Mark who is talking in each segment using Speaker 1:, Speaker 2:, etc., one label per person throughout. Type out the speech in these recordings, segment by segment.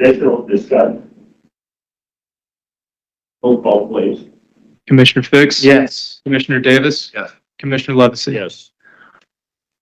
Speaker 1: Additional discussion. Roll call, please.
Speaker 2: Commissioner Fix?
Speaker 3: Yes.
Speaker 2: Commissioner Davis?
Speaker 3: Yes.
Speaker 2: Commissioner Levesey?
Speaker 3: Yes.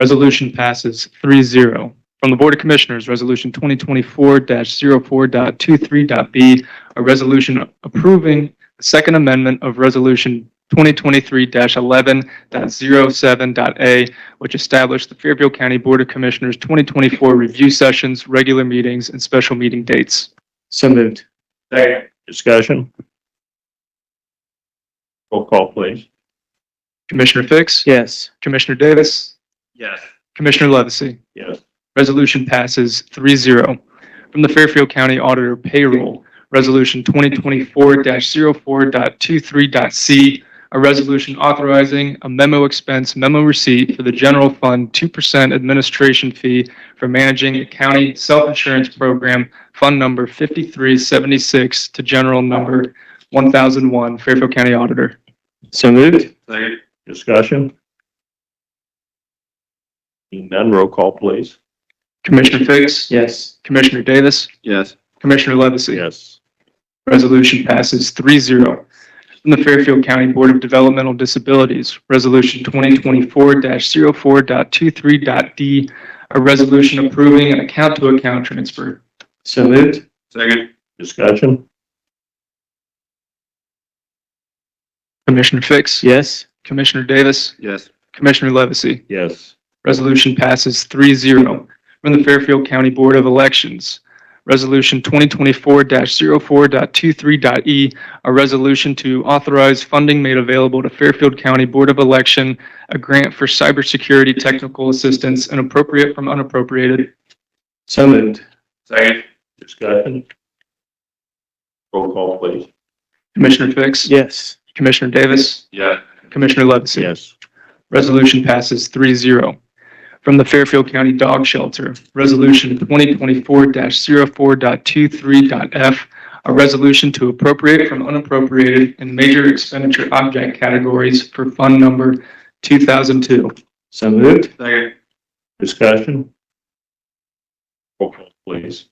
Speaker 2: Resolution passes 3-0. From the Board of Commissioners, Resolution 2024-04.23.b, a resolution approving the Second Amendment of Resolution 2023-11.07.a, which established the Fairfield County Board of Commissioners 2024 review sessions, regular meetings, and special meeting dates.
Speaker 3: So moved.
Speaker 1: Second.
Speaker 3: Discussion?
Speaker 1: Roll call, please.
Speaker 2: Commissioner Fix?
Speaker 3: Yes.
Speaker 2: Commissioner Davis?
Speaker 1: Yes.
Speaker 2: Commissioner Levesey?
Speaker 1: Yes.
Speaker 2: Resolution passes 3-0. From the Fairfield County Auditor Payroll, Resolution 2024-04.23.c, a resolution authorizing a memo expense memo receipt for the general fund 2% administration fee for managing a county self-insurance program, Fund Number 5376 to General Number 1001, Fairfield County Auditor.
Speaker 3: So moved.
Speaker 1: Second. Discussion. Seeing none, roll call, please.
Speaker 2: Commissioner Fix?
Speaker 3: Yes.
Speaker 2: Commissioner Davis?
Speaker 1: Yes.
Speaker 2: Commissioner Levesey?
Speaker 1: Yes.
Speaker 2: Resolution passes 3-0. From the Fairfield County Board of Developmental Disabilities, Resolution 2024-04.23.d, a resolution approving an account-to-account transfer.
Speaker 3: So moved.
Speaker 1: Second. Discussion.
Speaker 2: Commissioner Fix?
Speaker 3: Yes.
Speaker 2: Commissioner Davis?
Speaker 1: Yes.
Speaker 2: Commissioner Levesey?
Speaker 1: Yes.
Speaker 2: Resolution passes 3-0. From the Fairfield County Board of Elections, Resolution 2024-04.23.e, E, a resolution to authorize funding made available to Fairfield County Board of Election, a grant for cybersecurity technical assistance and appropriate from unappropriated.
Speaker 3: So moved.
Speaker 1: Second. Discussion. Roll call, please.
Speaker 2: Commissioner Fix?
Speaker 3: Yes.
Speaker 2: Commissioner Davis?
Speaker 1: Yeah.
Speaker 2: Commissioner Levesey?
Speaker 1: Yes.
Speaker 2: Resolution passes 3-0. From the Fairfield County Dog Shelter, Resolution 2024-04.23.f, a resolution to appropriate from unappropriated and major expenditure object categories for Fund Number 2002.
Speaker 3: So moved.
Speaker 1: Second. Discussion. Roll call, please.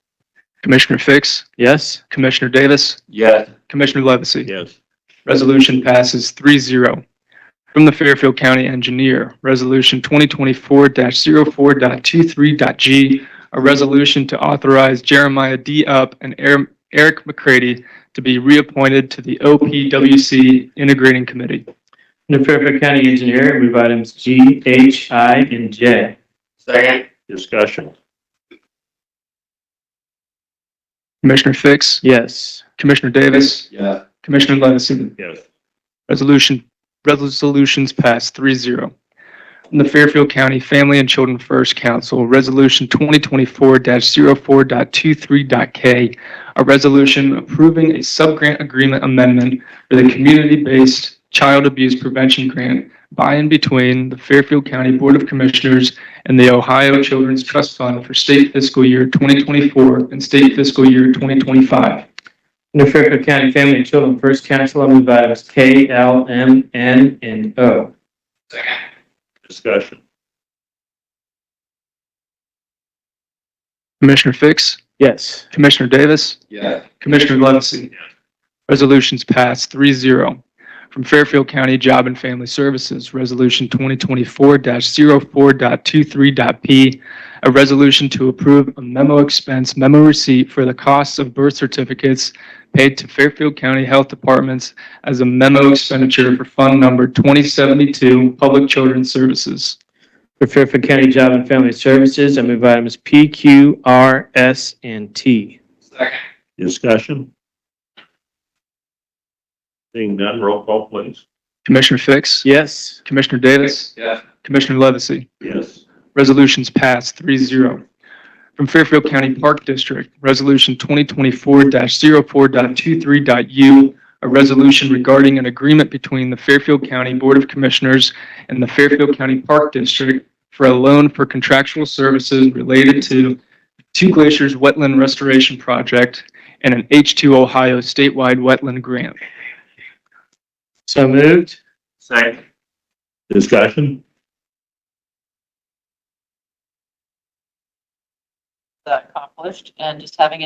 Speaker 2: Commissioner Fix,
Speaker 3: Yes.
Speaker 2: Commissioner Davis,
Speaker 1: Yes.
Speaker 2: Commissioner Levesey.
Speaker 1: Yes.
Speaker 2: Resolution passes 3-0. From the Fairfield County Engineer, Resolution 2024-04.23.g, a resolution to authorize Jeremiah D. Up and Er- Eric McCready to be reappointed to the OPWC Integrating Committee.
Speaker 3: Under Fairfield County Engineer, move items G, H, I, and J.
Speaker 1: Second. Discussion.
Speaker 2: Commissioner Fix,
Speaker 3: Yes.
Speaker 2: Commissioner Davis,
Speaker 1: Yeah.
Speaker 2: Commissioner Levesey.
Speaker 1: Yes.
Speaker 2: Resolution, resolutions passed 3-0. From the Fairfield County Family and Children First Council, Resolution 2024-04.23.k, a resolution approving a subgrant agreement amendment for the community-based child abuse prevention grant by and between the Fairfield County Board of Commissioners and the Ohio Children's Trust Fund for state fiscal year 2024 and state fiscal year 2025.
Speaker 3: Under Fairfield County Family and Children First Council, I move items K, L, M, N, and O.
Speaker 1: Discussion.
Speaker 2: Commissioner Fix,
Speaker 3: Yes.
Speaker 2: Commissioner Davis,
Speaker 1: Yeah.
Speaker 2: Commissioner Levesey? Resolutions passed 3-0. From Fairfield County Job and Family Services, Resolution 2024-04.23.p, a resolution to approve a memo expense memo receipt for the costs of birth certificates paid to Fairfield County Health Departments as a memo expenditure for Fund Number 2072, Public Children's Services.
Speaker 3: Under Fairfield County Job and Family Services, I move items P, Q, R, S, and T.
Speaker 1: Discussion. Seeing none, roll call, please.
Speaker 2: Commissioner Fix?
Speaker 3: Yes.
Speaker 2: Commissioner Davis?
Speaker 1: Yeah.
Speaker 2: Commissioner Levesey?
Speaker 1: Yes.
Speaker 2: Resolutions passed 3-0. From Fairfield County Park District, Resolution 2024-04.23.u, a resolution regarding an agreement between the Fairfield County Board of Commissioners and the Fairfield County Park District for a loan for contractual services related to Two Glaciers Wetland Restoration Project and an H2 Ohio statewide wetland grant.
Speaker 3: So moved.
Speaker 1: Second. Discussion.
Speaker 4: that accomplished and just having it